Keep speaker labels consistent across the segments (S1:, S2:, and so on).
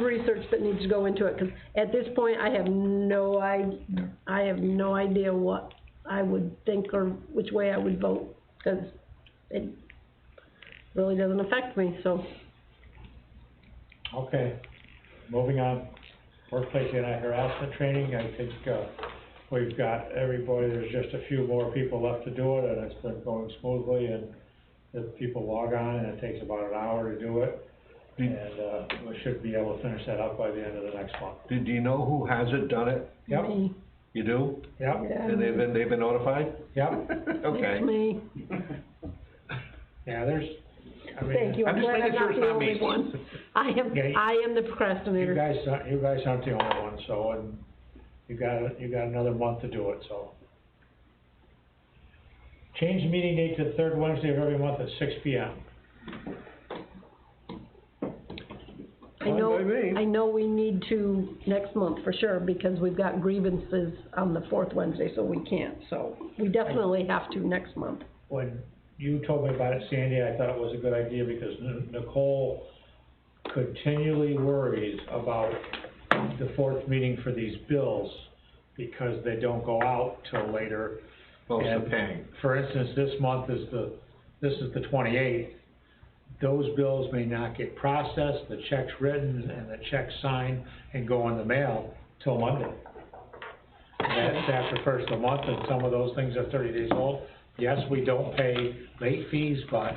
S1: research that needs to go into it, 'cause at this point, I have no i- I have no idea what I would think or which way I would vote, 'cause it really doesn't affect me, so.
S2: Okay, moving on, workplace anti-harassment training, I think, uh, we've got everybody, there's just a few more people left to do it, and it's been going smoothly, and the people log on, and it takes about an hour to do it, and, uh, we should be able to finish that up by the end of the next month.
S3: Do, do you know who hasn't done it?
S2: Yep,
S1: me,
S3: You do?
S2: yep,
S1: yeah,
S3: And they've been, they've been notified?
S2: yep,
S3: Okay.
S1: It's me,
S2: yeah, there's, I mean.
S1: thank you,
S3: I'm
S1: I'm
S3: just
S1: glad I'm
S3: making sure
S1: not
S3: it's
S1: the
S3: not me.
S1: only one. I am,
S2: Okay.
S1: I am the
S2: You
S1: procrastinator.
S2: guys, aren't- you guys aren't the only one, so, and you got, you got another month to do it, so. Change the meeting date to the third Wednesday of every month at six P M.
S1: I
S3: Fine
S1: know,
S3: by me.
S1: I know we need to next month for sure, because we've got grievances on the fourth Wednesday, so we can't, so. We definitely have to next month.
S2: When you told me about it, Sandy, I thought it was a good idea because N- Nicole continually worries about the fourth meeting for these bills because they don't go out till later
S3: Most
S2: And,
S3: are paying.
S2: For instance, this month is the, this is the twenty-eighth. Those bills may not get processed, the check's written and the check signed and go in the mail till Monday. And That's after first of the month and some of those things are thirty days old. Yes, we don't pay late fees, but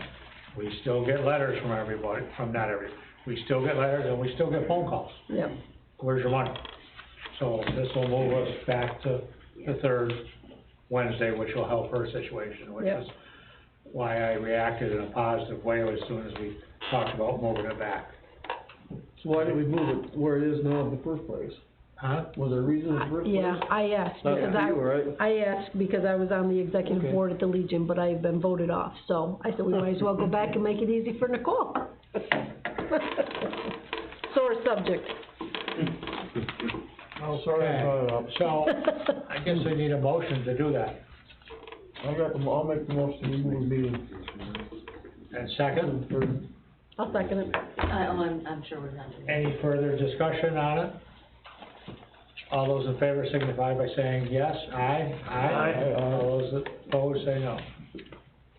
S2: we still get letters from everybody, from not every, we still get letters and we still get phone calls.
S1: Yep.
S2: Where's your money? So this will move us back to the third Wednesday, which will help her situation, which
S1: Yep.
S2: is why I reacted in a positive way as soon as we talked about moving it back.
S4: So why did we move it where it is now in the first place?
S2: Huh?
S4: Was there a reason in the first place?
S1: Yeah, I asked,
S4: Not
S1: because
S4: for
S1: I,
S4: you, right?
S1: I asked because I was on the executive
S4: Okay.
S1: board at the Legion, but I have been voted off, so I said we might as well go back and make it easy for Nicole. Sore subject.
S4: Oh, sorry, I brought it up.
S2: So I guess we need a motion to do that.
S4: I'll make the, I'll make the motion to move the meeting
S2: And second,
S4: to the third.
S1: I'll second it.
S5: Uh, oh, I'm, I'm sure we're not doing that.
S2: any further discussion on it? All those in favor signify by saying yes, aye, aye.
S4: Aye.
S2: All those opposed say no.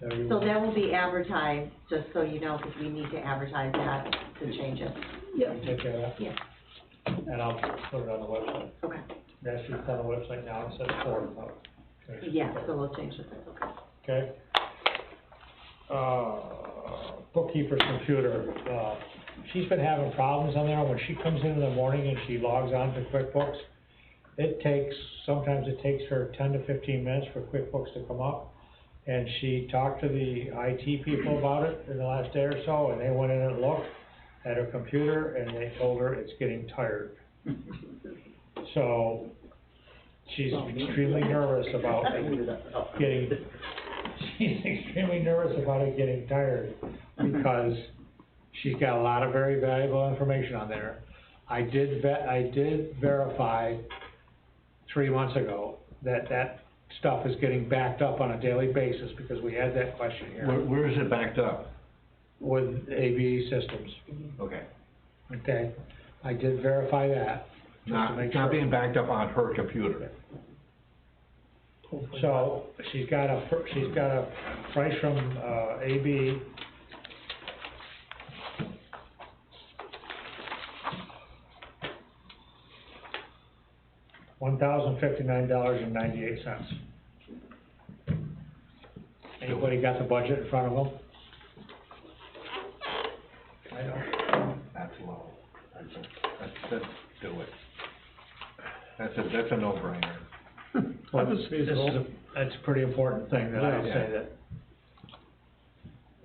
S2: Everyone-
S5: So that will be advertised, just so you know, because we need to advertise that to change it.
S1: Yep.
S2: Take care of that.
S5: Yeah.
S2: And I'll put it on the website.
S5: Okay.
S2: That's just on the website now, it says four o'clock.
S5: Yeah, so we'll change it, that's okay.
S2: Okay. Uh, bookkeeper's computer, uh, she's been having problems on there. When she comes in in the morning and she logs on to QuickBooks, it takes, sometimes it takes her ten to fifteen minutes for QuickBooks to come up. And she talked to the IT people about it in the last day or so, and they went in and looked at her computer, and they told her it's getting tired. So, she's extremely nervous about getting, she's extremely nervous about it getting tired, because she's got a lot of very valuable information on there. I did vet, I did verify three months ago that that stuff is getting backed up on a daily basis, because we had that question
S3: Where,
S2: here
S3: where is it backed up?
S2: with ABE systems,
S3: Okay.
S2: okay? I did verify that, just to
S3: Not,
S2: make
S3: it's
S2: sure.
S3: not being backed up on her computer.
S2: So, she's got a, pr- she's got a price from, uh, AB. One thousand fifty-nine dollars and ninety-eight cents. Anybody got the budget in front of them? I don't.
S3: That's low. That's, that's, do it. That's a, that's a no-brainer.
S4: I just
S2: This
S4: feel
S2: is, a- that's a pretty important thing that I would
S3: Yeah.
S2: say that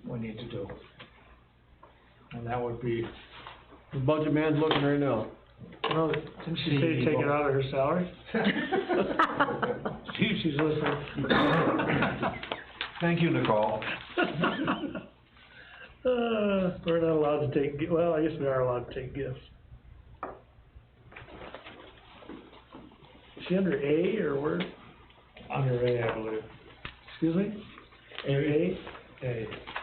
S2: we need to do. And that would be
S4: the budget man's looking right now.
S6: Well, didn't she say
S2: See,
S6: take it
S2: people-
S6: out of her salary? See if she's listening.
S3: Thank you, Nicole.
S6: Uh, we're not allowed to take, gi- well, I guess we are allowed to take gifts. Is she under A or where,
S2: under A, I believe.
S6: excuse me? Under A?
S2: A,